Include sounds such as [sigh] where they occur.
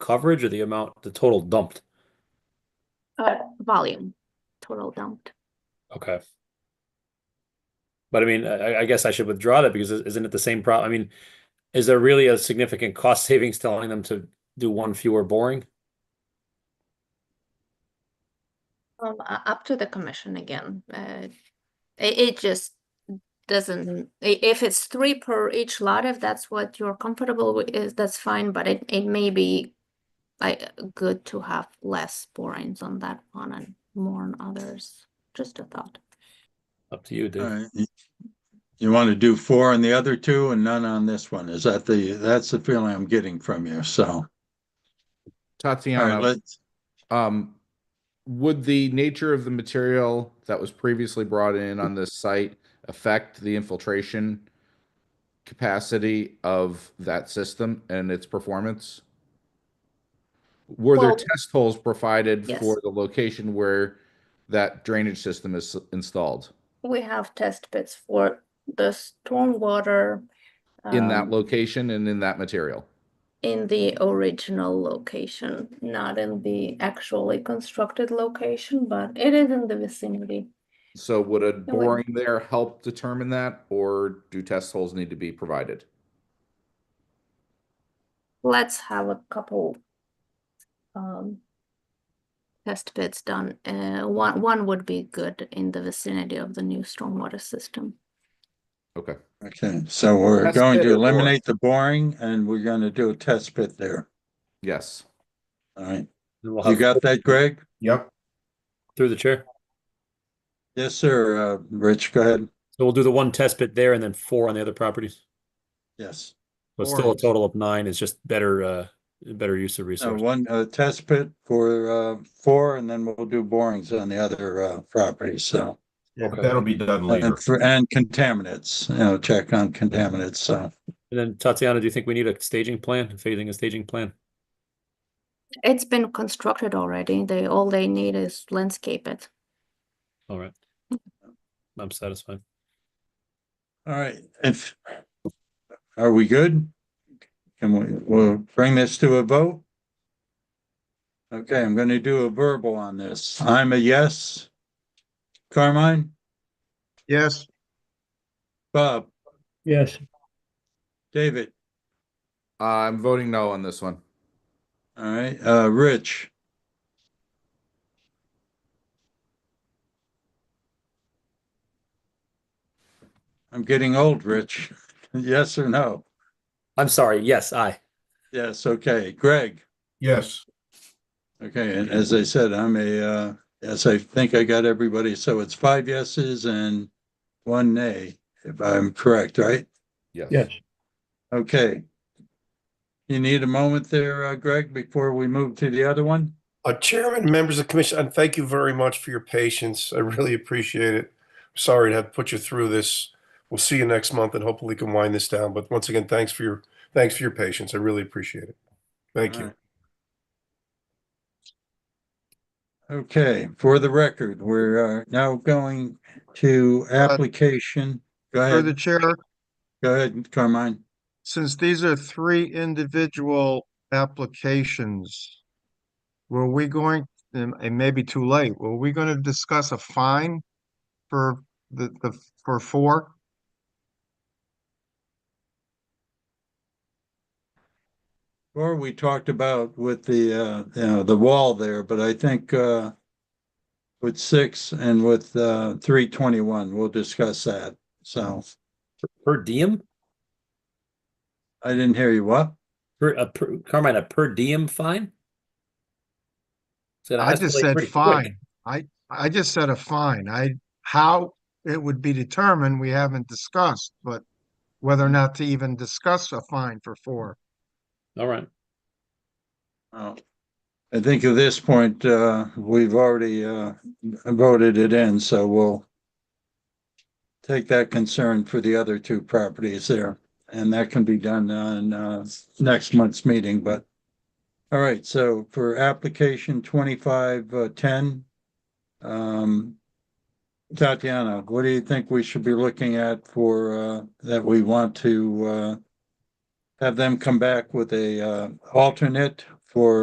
coverage or the amount, the total dumped? Uh, volume, total dumped. Okay. But I mean, I, I guess I should withdraw that because isn't it the same problem? I mean, is there really a significant cost savings telling them to do one fewer boring? Um, u- up to the commission again. Uh, it, it just doesn't, i- if it's three per each lot, if that's what you're comfortable with, is, that's fine, but it, it may be like good to have less borings on that one and more on others. Just a thought. Up to you, All dude. right. You- You want to do four on the other two and none on this one? Is that the, that's the feeling I'm getting from you, so. All right, Tatiana, let's, um, would the nature of the material that was previously brought in on this site affect the infiltration capacity of that system and its performance? Were there Well- test holes provided Yes. for the location where that drainage system is installed? We have test pits for the stormwater. In that um, location and in that material? In the original location, not in the actually constructed location, but it is in the vicinity. So would a wouldn't. boring there help determine that, or do test holes need to be provided? Let's have a couple um test pits done. Uh, one one would be good in the vicinity of the new stormwater system. Okay. okay, so we're Test going pit to or bore? eliminate the boring and we're going to do a test pit there. Yes. All right. And we'll You have- got that, Greg? Yep. Through the chair. Yes, sir. Uh, Rich, go ahead. So we'll do the one test bit there and then four on the other properties. Yes. So it's still a total of nine. It's just better, uh, better use of So resources. one, uh, test pit for, uh, four and then we'll do borings on the other, uh, properties, so. Yeah, Okay. but that'll be done later. And for, and contaminants, you know, check on contaminants, so. And then Tatiana, do you think we need a staging plan, phasing a staging plan? It's been constructed already. They all they need is landscape it. All right. I'm satisfied. All right, if, are we good? Can we, we'll bring this to a vote? Okay, I'm gonna do a verbal on this. I'm a yes. Carmine, Yes. Bob, Yes. David, Uh, I'm voting no on this one. all right, uh, Rich, I'm getting old, Rich. [laughs] Yes or no? I'm sorry. Yes, I. Yes, okay. Greg? Yes. Okay, and as I said, I'm a, uh, as I think I got everybody, so it's five yeses and one nay, if I'm correct, right? Yes. Okay. You need a moment there, uh, Greg, before we move to the other one? Uh, Chairman, members of the commission, and thank you very much for your patience. I really appreciate it. Sorry to have put you through this. We'll see you next month and hopefully can wind this down. But once again, thanks for your, thanks for your patience. I really appreciate it. Thank you. Okay, for the record, we're uh, now going to application. Go Through the ahead, chair, go ahead, Carmine. since these are three individual applications, were we going, and it may be too late, were we going to discuss a fine for the, the, for four? Or we talked about with the, uh, you know, the wall there, but I think, uh, with six and with, uh, three twenty-one, we'll discuss that. So Per diem? I didn't hear you. What? Per, a per, Carmine, a per diem fine? Said it I has to just play said pretty quick. fine. I just said a fine. I, how it would be determined, we haven't discussed, but whether or not to even discuss a fine for four. All right. Oh. I think at this point, uh, we've already, uh, voted it in, so we'll take that concern for the other two properties there, and that can be done on, uh, next month's meeting, but all right, so for application twenty-five, uh, ten, um, Tatiana, what do you think we should be looking at for, uh, that we want to, uh, have them come back with a, uh, alternate for